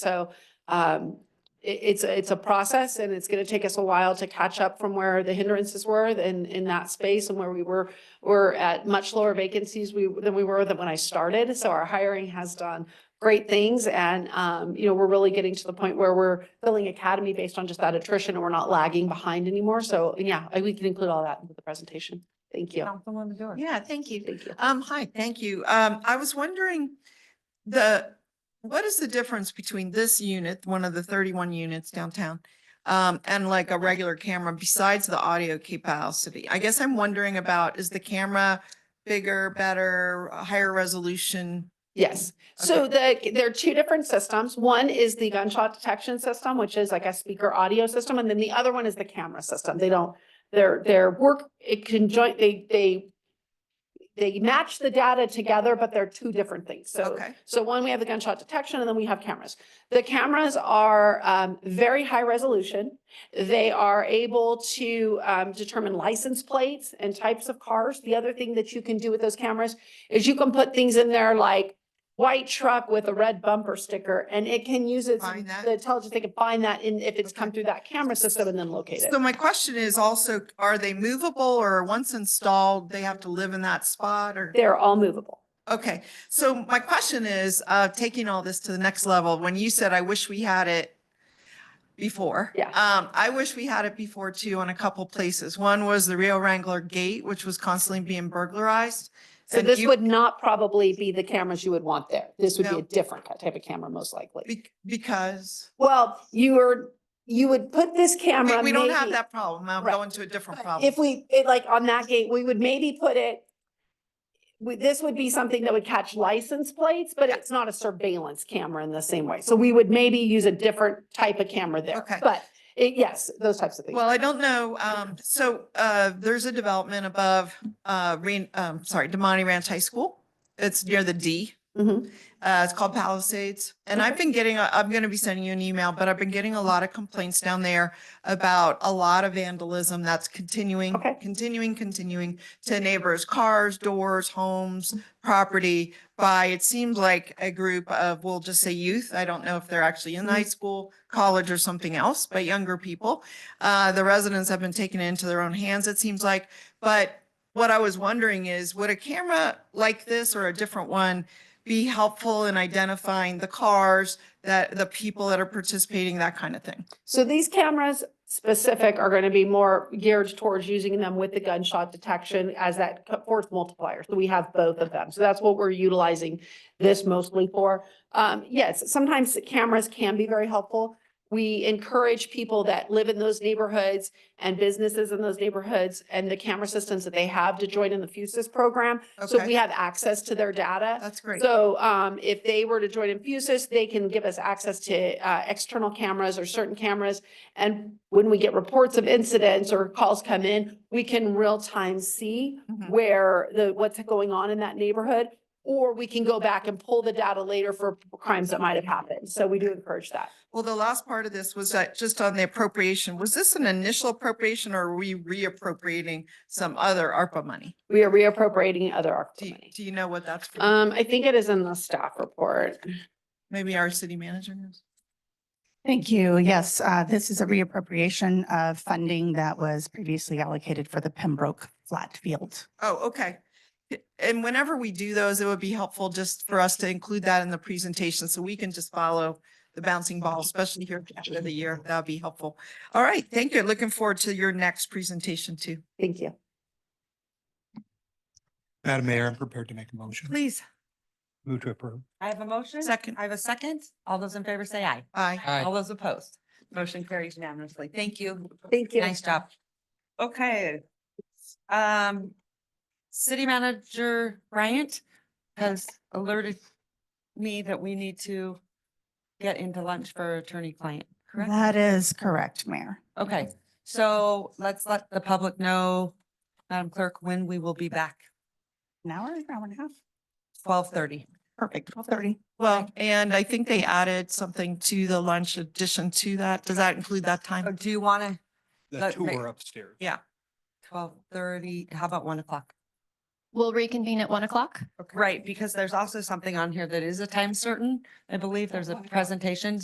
So um, it, it's, a- it's a process and it's going to take us a while to catch up from where the hindrances were in, in that space and where we were, we're at much lower vacancies we, than we were than when I started. So our hiring has done great things and, um, you know, we're really getting to the point where we're filling academy based on just that attrition and we're not lagging behind anymore. So yeah, I- we can include all that with the presentation. Thank you. Councilwoman Dorr. Yeah, thank you. Thank you. Um, hi, thank you. Um, I was wondering the, what is the difference between this unit, one of the thirty-one units downtown? Um, and like a regular camera besides the audio capacity? I guess I'm wondering about, is the camera bigger, better, a higher resolution? Yes, so the, there are two different systems. One is the gunshot detection system, which is like a speaker audio system, and then the other one is the camera system. They don't, their, their work, it conjoint, they, they they match the data together, but they're two different things. So Okay, so one, we have the gunshot detection and then we have cameras. The cameras are um, very high resolution. They are able to um, determine license plates and types of cars. The other thing that you can do with those cameras is you can put things in there like white truck with a red bumper sticker and it can use its, Find that? the intelligence, they can find that in, if it's come Okay. through that camera system and then locate it. so my question is also, are they movable or once installed, they have to live in that spot or? They're all movable. Okay, so my question is, uh, taking all this to the next level, when you said, I wish we had it before. Yeah. Um, I wish we had it before too on a couple places. One was the Rio Wrangler Gate, which was constantly being burglarized. So And this you- would not probably be the cameras you would want there. This would be No. a different type of camera, most likely. be- Because Well, you are, you would put this we, camera we don't have maybe- that problem. I'm Right. going to a different problem. If we, it like on that gate, we would maybe put it, we, this would be something that would catch license plates, but it's not a surveillance camera in the same way. So we would maybe use a different type of camera there. Okay. But it, yes, those types of things. Well, I don't know. Um, so, uh, there's a development above, uh, Ren, um, sorry, Demonte Ranch High School. It's near the D. Mhm. Uh, it's called Palisades. And I've been getting, I'm going to be sending you an email, but I've been getting a lot of complaints down there about a lot of vandalism that's continuing, Okay. continuing, continuing to neighbors' cars, doors, homes, property by, it seems like a group of, we'll just say youth. I don't know if they're actually in high school, college or something else, but younger people. Uh, the residents have been taking it into their own hands, it seems like. But what I was wondering is, would a camera like this or a different one be helpful in identifying the cars, that, the people that are participating, that kind of thing? So these cameras specific are going to be more geared towards using them with the gunshot detection as that co- force multiplier. So we have both of them. So that's what we're utilizing this mostly for. Um, yes, sometimes the cameras can be very helpful. We encourage people that live in those neighborhoods and businesses in those neighborhoods and the camera systems that they have to join in the FUSIS program. So we Okay, have access to their data. that's great. So um, if they were to join Infusus, they can give us access to uh, external cameras or certain cameras. And when we get reports of incidents or calls come in, we can real time see Mhm. where the, what's going on in that neighborhood. Or we can go back and pull the data later for crimes that might have happened. So we do encourage that. Well, the last part of this was that just on the appropriation, was this an initial appropriation or are we reappropriating some other ARPA money? We are reappropriating other ARPA Do, you- money. do you know what that's for? Um, I think it is in the staff report. Maybe our city manager knows? Thank you. Yes, uh, this is a reappropriation of funding that was previously allocated for the Pembroke Flat Field. Oh, okay. Y- And whenever we do those, it would be helpful just for us to include that in the presentation so we can just follow the bouncing ball, especially here at the end of the year. That'd be helpful. All right, thank you. Looking forward to your next presentation too. Thank you. Madam Mayor, I'm prepared to make a motion. Please. Move to approve. I have a motion. Second. I have a second. All those in favor say aye. Aye. All those opposed. Motion carries unanimously. Thank you. Thank you. Nice job. Okay. Um, City Manager Bryant has alerted me that we need to get into lunch for attorney-client, correct? That is correct, Mayor. Okay, so let's let the public know, Madam Clerk, when we will be back. An hour, hour and a half? Twelve thirty. Perfect, twelve thirty. Well, and I think they added something to the lunch addition to that. Does that include that time? Do you want to, The Let me- tour upstairs. twelve thirty, how about one o'clock? We'll reconvene at one o'clock. Right, because there's also something on here that is a time certain. I believe there's a presentation.